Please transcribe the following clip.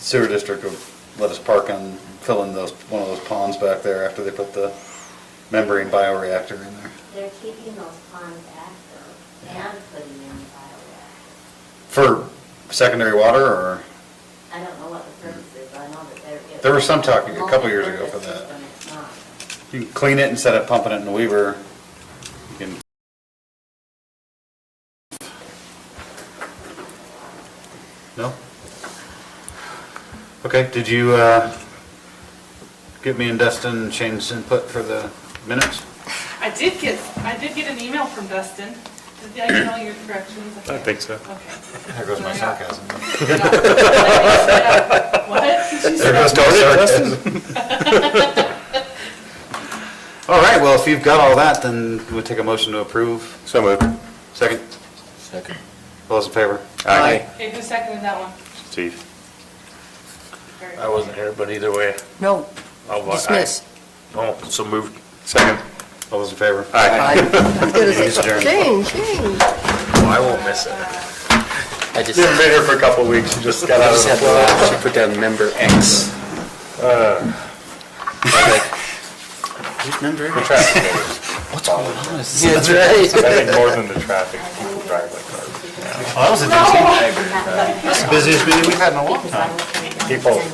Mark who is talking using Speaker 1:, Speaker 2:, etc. Speaker 1: sewer district would let us park and fill in those, one of those ponds back there after they put the membrane bioreactor in there.
Speaker 2: They're keeping those ponds active and putting in bioreactors.
Speaker 1: For secondary water, or,
Speaker 2: I don't know what the purpose is, I know that they're.
Speaker 1: There was some talk a couple years ago for that.
Speaker 2: Multi-purpose system, it's not.
Speaker 1: you can clean it instead of pumping it in Weaver, you can. No? Okay, did you, uh, get me and Dustin Shane's input for the minutes?
Speaker 3: I did get, I did get an email from Dustin. Did I get all your corrections?
Speaker 4: I think so.
Speaker 3: Okay.
Speaker 1: There goes my sarcasm.
Speaker 3: What? She
Speaker 1: There
Speaker 3: said,
Speaker 1: goes my sarcasm. All right, well, if you've got all that, then we'll take a motion to approve.
Speaker 4: So moved.
Speaker 1: Second? Second. All those in favor?
Speaker 4: Aye.
Speaker 3: Okay, who seconded that one?
Speaker 4: Steve.
Speaker 3: Very
Speaker 5: I
Speaker 3: good.
Speaker 5: wasn't here, but either way,
Speaker 6: No,
Speaker 5: I'll vote aye.
Speaker 6: dismiss.
Speaker 5: Oh, so moved.
Speaker 4: Second.
Speaker 1: All those in favor?
Speaker 4: Aye.
Speaker 6: As good as it-
Speaker 1: Adjourned.
Speaker 6: Shane, Shane.
Speaker 5: Oh, I won't miss it.
Speaker 7: I just,
Speaker 4: You haven't been here for a couple of weeks, you just got
Speaker 7: I
Speaker 4: out
Speaker 7: just
Speaker 4: of
Speaker 7: had
Speaker 4: the
Speaker 7: to laugh. She put down member X.
Speaker 4: Uh. traffic.
Speaker 7: What's going on? Is
Speaker 4: That's right. I think more than the traffic, people drive like cars.
Speaker 1: Well, that was a decent. Busiest meeting we've had in a while.
Speaker 2: Because I was-
Speaker 4: People